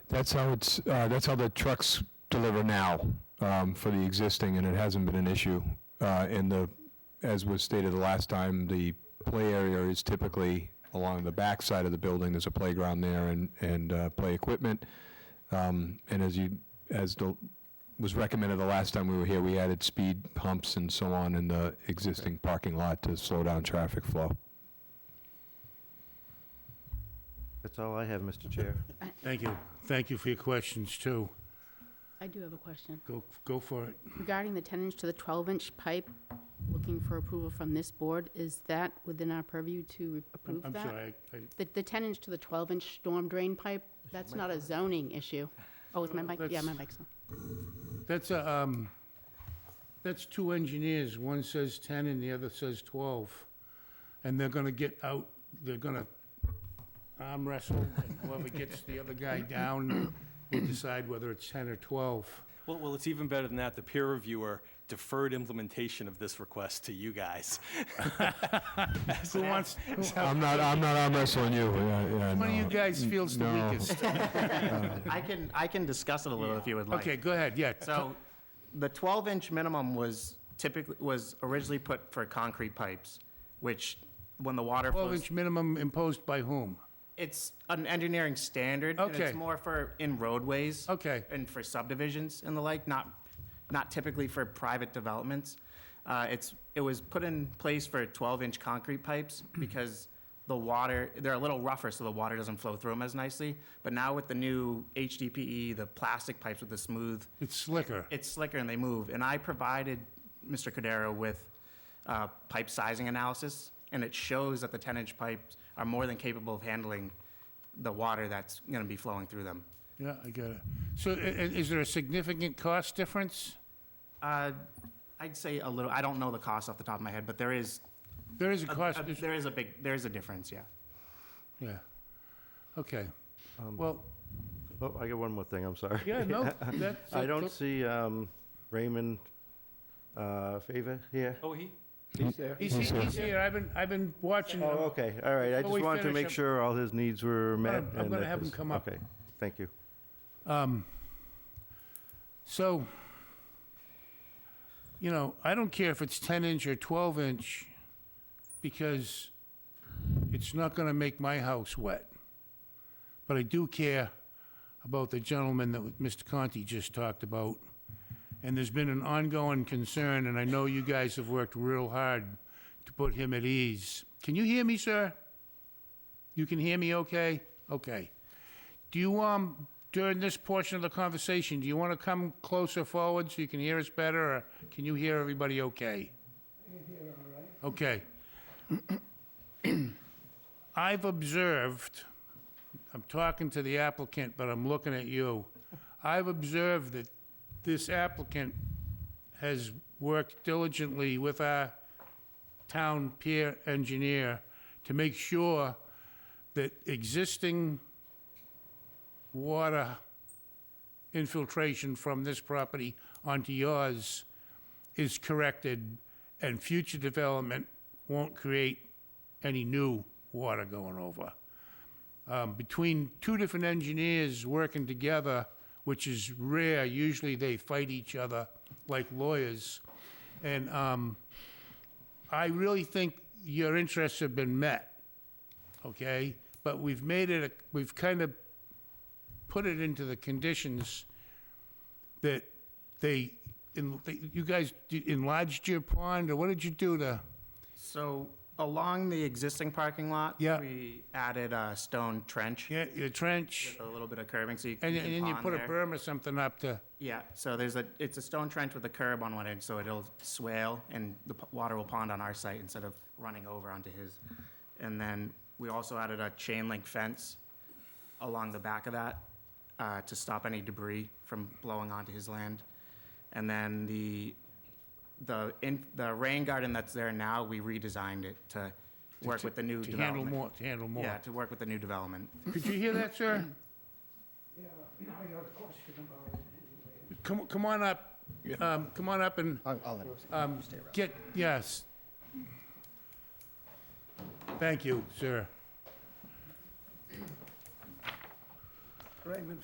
That's how it's, uh, that's how the trucks deliver now, um, for the existing, and it hasn't been an issue. Uh, and the, as was stated the last time, the play area is typically along the back side of the building. There's a playground there and, and, uh, play equipment. Um, and as you, as the, was recommended the last time we were here, we added speed humps and so on in the existing parking lot to slow down traffic flow. That's all I have, Mr. Chair. Thank you. Thank you for your questions, too. I do have a question. Go, go for it. Regarding the 10-inch to the 12-inch pipe, looking for approval from this board, is that within our purview to re- approve I'm that? sorry, I- I- The- The 10-inch to the 12-inch storm drain pipe, that's not a zoning issue. Oh, is my mic, yeah, my mic's on. that's a, um, that's two engineers. One says 10 and the other says 12. And they're gonna get out, they're gonna arm wrestle, and whoever gets the other guy down will decide whether it's 10 or 12. Well, well, it's even better than that. The peer reviewer deferred implementation of this request to you guys. Who wants, who- I'm not, I'm not arm wrestling you, yeah, yeah, one of you no. guys feels the No. weakest? I can, I can discuss it a little if you would like. Okay, go ahead, yeah. So the 12-inch minimum was typically, was originally put for concrete pipes, which when the water flows, 12-inch minimum imposed by whom? it's an engineering standard. And Okay. it's more for in roadways. Okay. And for subdivisions and the like, not, not typically for private developments. Uh, It's, it was put in place for 12-inch concrete pipes because the water, they're a little rougher, so the water doesn't flow through them as nicely. But now with the new HDPE, E, the plastic pipes with the smooth It's slicker. it's slicker and they move. And I provided Mr. Cordero with uh, pipe sizing analysis, and it shows that the 10-inch pipes are more than capable of handling the water that's going to be flowing through them. Yeah, I get it. So i- i- is there a significant cost difference? Uh, I'd say a little, I don't know the cost off the top of my head, but there is, There is a Uh, a- cost, a- there is a big, there is a difference, yeah. yeah. Okay. Um, Well, Oh, I got one more thing, I'm sorry. yeah, no, that's... I don't see um, Raymond uh, Favor here. Oh, he? He's there. He's he- he's here, I've been, I've been watching. Oh, him. okay, all right, I Before just we wanted to finish, make I'm- sure all his needs were met. I'm- I'm and gonna that have him this- come up. Okay, thank you. Um, So, you know, I don't care if it's 10-inch or 12-inch, because it's not going to make my house wet. But I do care about the gentleman that Mr. Conti just talked about. And there's been an ongoing concern, and I know you guys have worked real hard to put him at ease. Can you hear me, sir? You can hear me okay? Okay. Do you, um, during this portion of the conversation, do you want to come closer forward so you can hear us better, or can you hear everybody okay? I can hear all right. Okay. I've observed, I'm talking to the applicant, but I'm looking at you. I've observed that this applicant has worked diligently with our town peer engineer to make sure that existing water infiltration from this property onto yours is corrected, and future development won't create any new water going over. Um, Between two different engineers working together, which is rare, usually they fight each other like lawyers. And um, I really think your interests have been met, okay? But we've made it, a- we've kind of put it into the conditions that they, in- they- you guys d- enlarged your pond, or what did you do to? So along the existing parking lot, Yeah. we added a stone trench, Yeah, your trench, a little bit of curbing, so you can and keep and then you pond put a there. berm or something up to, Yeah, so there's a, it's a stone trench with a curb on one edge, so it'll swale and the p- water will pond on our site instead of running over onto his. And then we also added a chain link fence along the back of that uh, to stop any debris from blowing onto his land. And then the, the, in- the rain garden that's there now, we redesigned it to work with the new to handle development. more, to handle Yeah, more. to work with the new development. Could you hear that, sir? Yeah, I got a question about it anyway. Come, come on up, um, come on up and. I'll let him stay around. Get, yes. Thank you, sir. Raymond